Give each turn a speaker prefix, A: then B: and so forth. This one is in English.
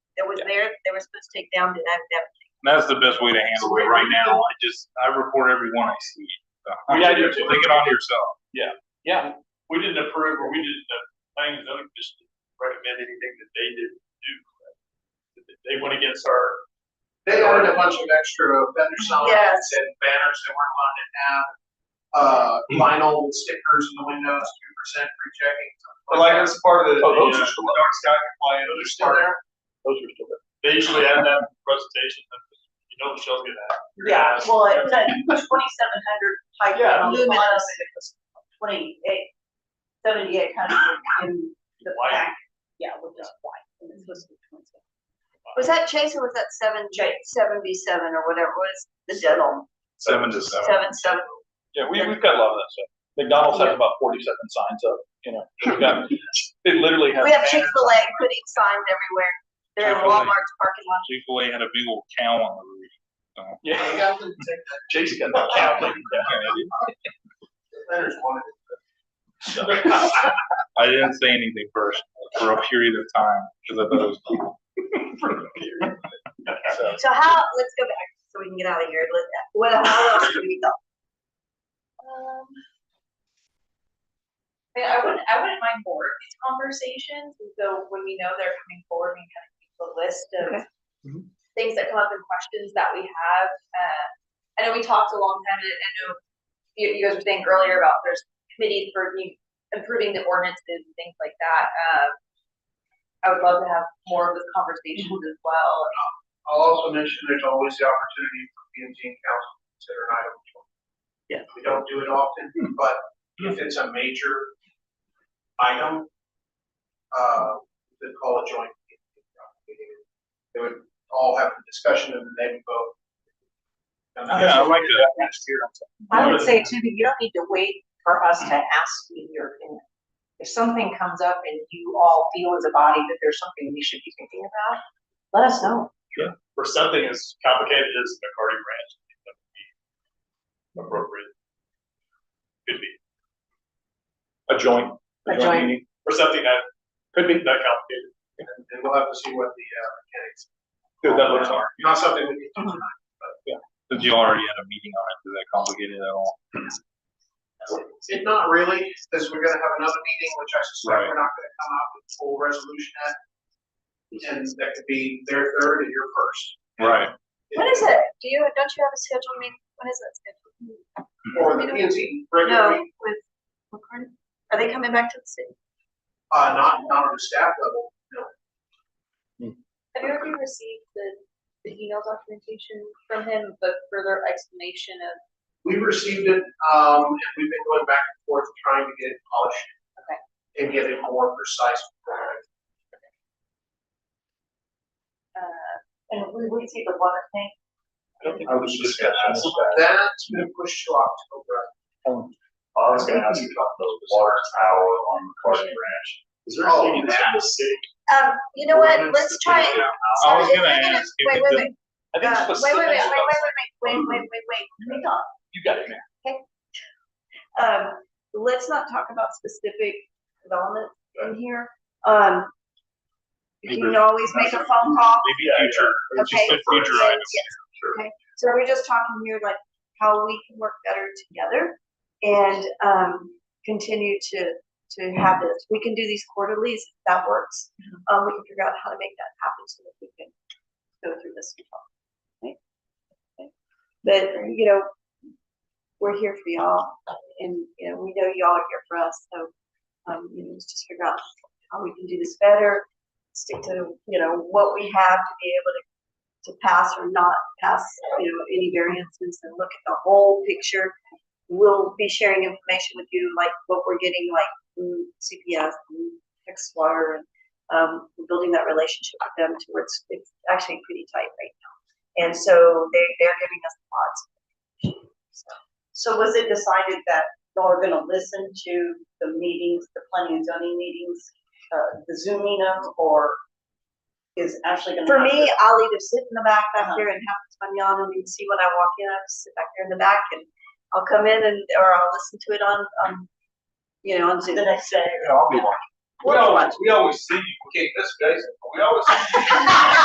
A: was there, that they were supposed to take down, did have that.
B: That's the best way to handle it right now. I just, I report everyone I see. So,
C: We had your-
B: Take it on yourself.
C: Yeah, we didn't approve or we didn't, uh, things, I just recommend anything that they didn't do. They went against our.
D: They added a bunch of extra vendor signs
A: Yes.
D: and banners they weren't allowed to have. Uh,
C: Hmm.
D: vinyl stickers in the windows, two percent free checking. something that.
C: that's part of the.
B: Oh, those are
C: still. Dark sky compliant. Those are still there. Those are still there. They usually add that in presentation, but you know Michelle's gonna have.
E: Yeah, well, it's a twenty-seven hundred pipe
C: Yeah.
E: luminous, twenty-eight, seventy-eight hundred in the
C: White.
E: back. Yeah, with the white, and it's supposed to be twenty-seven.
A: Was that Chase or was that seven, J, seven B seven or whatever was the deadline?
B: Seven to seven.
A: Seven, seven.
F: Yeah, we, we've got a lot of that stuff. McDonald's has about forty-seven signs up, you know, we've got, it literally has.
A: We have
F: banners.
A: Chick-fil-A putting signs everywhere. They're in
B: Chick-fil-A.
A: Walmart's parking lot.
B: Chick-fil-A had a big old cow on the roof.
D: They
F: Yeah,
D: got them to take that,
F: Jason got the cow thing.
D: the vendors wanted it.
B: I didn't say anything first for a period of time because I thought it was cool.
F: So,
A: So how, let's go back so we can get out of here. Let- What, how else do we go?
G: Um, Yeah, I wouldn't, I wouldn't mind more of these conversations, and so when we know they're coming forward, we kind of keep a list of
A: Okay.
G: things that come up and questions that we have, uh, I know we talked a long time, and I know you, you guys were saying earlier about there's committees for you- improving the ordinances and things like that, um, I would love to have more of those conversations as well,
D: I'll also mention there's always the opportunity for P and Z and council to consider an item.
A: Yeah.
D: We don't do it often, but if it's a major item, uh, they call a joint. P and Z meeting. They would all have a discussion and they would vote.
B: Yeah, I like that.
E: I would say too, that you don't need to wait for us to ask you your opinion. If something comes up and you all feel as a body that there's something we should be thinking about, let us know.
C: For something as complicated as the McCarty branch, I think that would be appropriate. Could be,
F: A joint.
E: A joint.
F: meeting.
C: for something that could be that complicated.
D: And and we'll have to see what the uh, mechanics.
F: Dude, that looks hard.
D: Not something we can.
B: Since you already had a meeting on it, is that complicated at all?
D: It not really, because we're gonna have another meeting, which I suspect we're not gonna come out with a full resolution at. And that could be their third and your first.
B: Right.
A: When is it? Do you, don't you have a scheduled meeting? When is that scheduled?
D: Or the P and Z regular
A: No,
D: meeting,
A: with, McCarty? are they coming back to the city?
D: uh, not, not on the staff level, no.
G: Have you already received the, the email documentation from him, but further explanation of
D: We received it, um, and we've been going back and forth trying to get it polished.
G: Okay.
D: And get it more precise.
G: uh,
E: And we, we see the water tank.
F: I don't think I was just gonna ask that.
D: That's been pushed to October.
C: Oh. I was gonna ask you about the water tower on McCarty Branch. Is there
D: Oh,
C: anything that's in the city?
A: Um, you know what, let's try it.
B: I was
A: If
B: gonna
A: we're
B: ask if
A: Wait,
B: it
A: wait,
B: did-
A: wait,
F: I think
A: uh, wait, wait,
F: specific
A: wait, wait, wait,
F: stuff,
A: wait, wait, wait, wait, wait, wait, hang on.
F: you got it, man.
A: um, let's not talk about specific development in here. Um, you can always make a phone call.
B: Maybe future,
A: Okay.
B: just a future item.
A: Yes. Okay, so we're just talking here like how we can work better together and, um, continue to, to have this. We can do these quarterlies, if that works.
B: Mm-hmm.
A: Um, we can figure out how to make that happen so that we can go through this. and talk, right? Okay. But, you know, we're here for y'all and, you know, we know y'all are here for us, so, um, you know, let's just figure out how we can do this better. Stick to, you know, what we have to be able to to pass or not pass, you know, any variances and look at the whole picture. We'll be sharing information with you, like what we're getting, like from CPS, from Texas Water, and um, we're building that relationship with them to where it's, it's actually pretty tight right now. And so they, they're giving us lots. of information, so.
E: So was it decided that y'all are gonna listen to the meetings, the planning and zoning meetings, uh, the zooming them, or is Ashley gonna?
A: For
E: have
A: me,
E: to-
A: I'll either sit in the back back
E: Uh-huh.
A: here and have fun y'all and see when I walk in, I just sit back there in the back and I'll come in and, or I'll listen to it on, um, you know, on Zoom.
E: The next day?
A: We'll watch.
D: we always see you, okay, this guys, we always